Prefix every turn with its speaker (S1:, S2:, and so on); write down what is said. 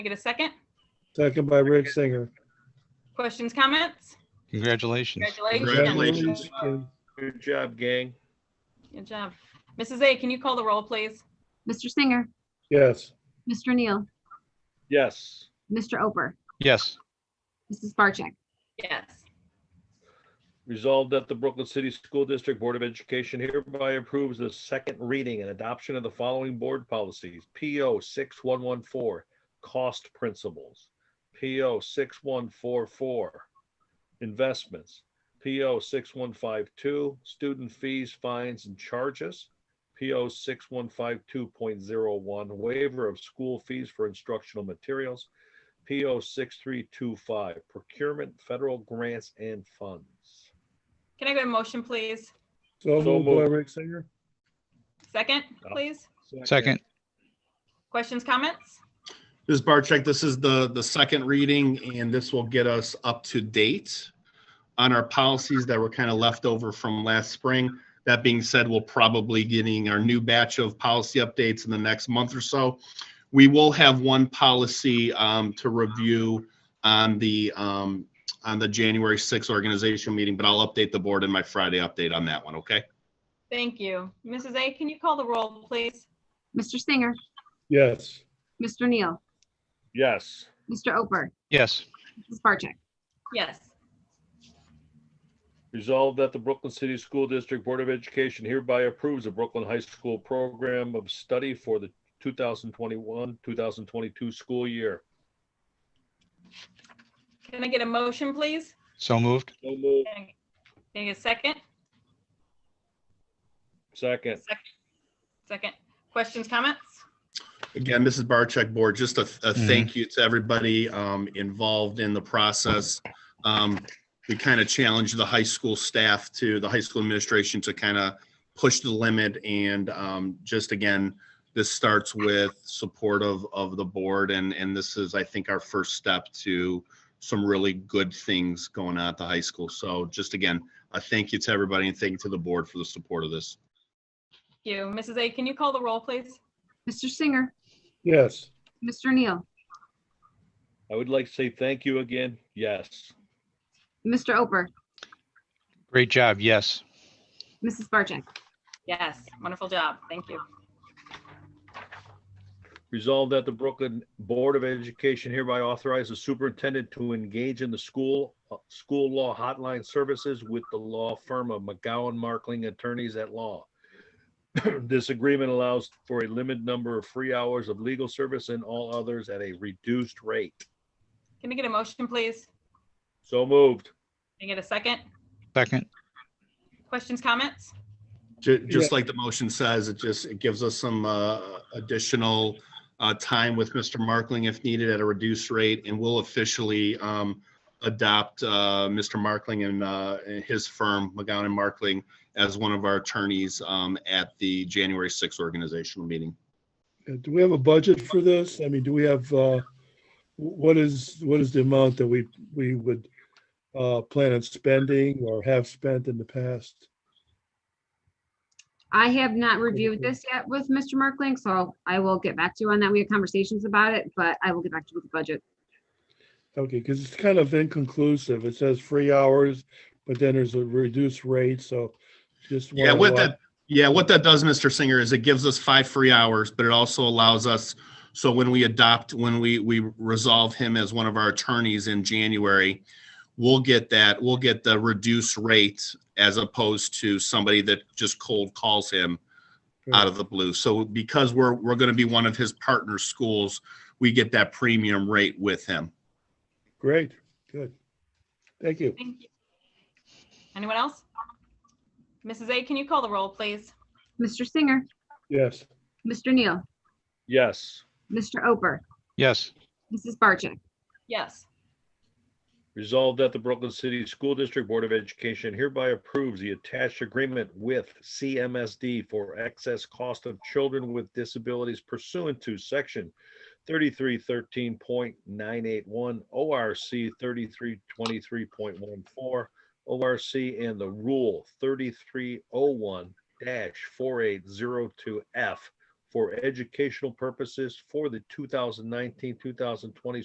S1: I get a second?
S2: Second by Rich Singer.
S1: Questions, comments?
S3: Congratulations.
S1: Congratulations.
S4: Congratulations. Good job, gang.
S1: Good job. Mrs. A, can you call the roll, please?
S5: Mr. Singer,
S2: Yes,
S5: Mr. Neal,
S4: Yes.
S5: Mr. Oper,
S3: Yes,
S5: Mrs. Barcheck,
S1: Yes.
S4: Resolved that the Brooklyn City School District Board of Education hereby approves the second reading and adoption of the following board policies. PO 6114, cost principles. PO 6144, investments. PO 6152, student fees, fines, and charges. PO 6152.01, waiver of school fees for instructional materials. PO 6325, procurement, federal grants and funds.
S1: Can I get a motion, please?
S2: so
S4: So
S2: moved by
S4: moved.
S2: Rick Singer.
S1: Second, please?
S3: second.
S1: Questions, comments?
S6: This is Barcheck. This is the, the second reading, and this will get us up to date on our policies that were kind of left over from last spring. That being said, we'll probably getting our new batch of policy updates in the next month or so. We will have one policy um, to review on the, um, on the January 6th organizational meeting, but I'll update the board in my Friday update on that one, okay?
S1: Thank you. Mrs. A, can you call the roll, please?
S5: Mr. Singer,
S2: Yes,
S5: Mr. Neal,
S4: Yes,
S5: Mr. Oper,
S3: Yes,
S5: Mrs. Barcheck,
S1: Yes.
S4: resolved that the Brooklyn City School District Board of Education hereby approves the Brooklyn High School Program of Study for the 2021, 2022 school year.
S1: Can I get a motion, please?
S3: so moved.
S4: So moved.
S1: Can I can I get a second?
S4: Second,
S1: Second. Questions, comments?
S6: Again, Mrs. Barcheck Board, just a, a thank you to everybody um, involved in the process. Um, We kind of challenged the high school staff to, the high school administration to kind of push the limit. And um, just again, this starts with support of, of the board. And, and this is, I think, our first step to some really good things going on at the high school. So just again, a thank you to everybody and thank you to the board for the support of this.
S1: Thank you. Mrs. A, can you call the roll, please?
S5: Mr. Singer,
S2: yes,
S5: Mr. Neal,
S4: I would like to say thank you again. Yes,
S5: Mr. Oper,
S3: Great job. Yes,
S5: Mrs. Barcheck,
S1: Yes. Wonderful job. Thank you.
S4: resolved that the Brooklyn Board of Education hereby authorizes the superintendent to engage in the school, uh, school law hotline services with the law firm of McGowan Markling Attorneys at Law. This agreement allows for a limited number of free hours of legal service and all others at a reduced rate.
S1: Can I get a motion, please?
S4: So moved.
S1: Can I get a second?
S3: second.
S1: Questions, comments?
S6: Ju- Just like the motion says, it just, it gives us some uh, additional uh, time with Mr. Markling if needed at a reduced rate, and we'll officially um, adopt uh, Mr. Markling and uh, and his firm, McGowan and Markling, as one of our attorneys um, at the January 6th organizational meeting.
S2: Uh, do we have a budget for this? I mean, do we have, uh, what is, what is the amount that we, we would uh, plan on spending or have spent in the past?
S5: I have not reviewed this yet with Mr. Merkling, so I will get back to you on that. We had conversations about it, but I will get back to you with the budget.
S2: Okay, because it's kind of inconclusive. It says free hours, but then there's a reduced rate, so just.
S6: Yeah,
S2: wanna
S6: what
S2: wa-
S6: that, yeah, what that does, Mr. Singer, is it gives us five free hours, but it also allows us, so when we adopt, when we, we resolve him as one of our attorneys in January, we'll get that, we'll get the reduced rate as opposed to somebody that just cold calls him out of the blue. So because we're, we're gonna be one of his partner schools, we get that premium rate with him.
S2: Great, good. Thank you.
S1: Thank you. Anyone else? Mrs. A, can you call the roll, please?
S5: Mr. Singer,
S2: Yes,
S5: Mr. Neal,
S4: Yes,
S5: Mr. Oper,
S3: Yes,
S5: Mrs. Barcheck,
S1: Yes.
S4: resolved that the Brooklyn City School District Board of Education hereby approves the attached agreement with CMSD for excess cost of children with disabilities pursuant to section thirty-three thirteen point nine eight one, ORC thirty-three twenty-three point one four, ORC and the rule thirty-three oh one four eight zero two F for educational purposes for the 2019, 2020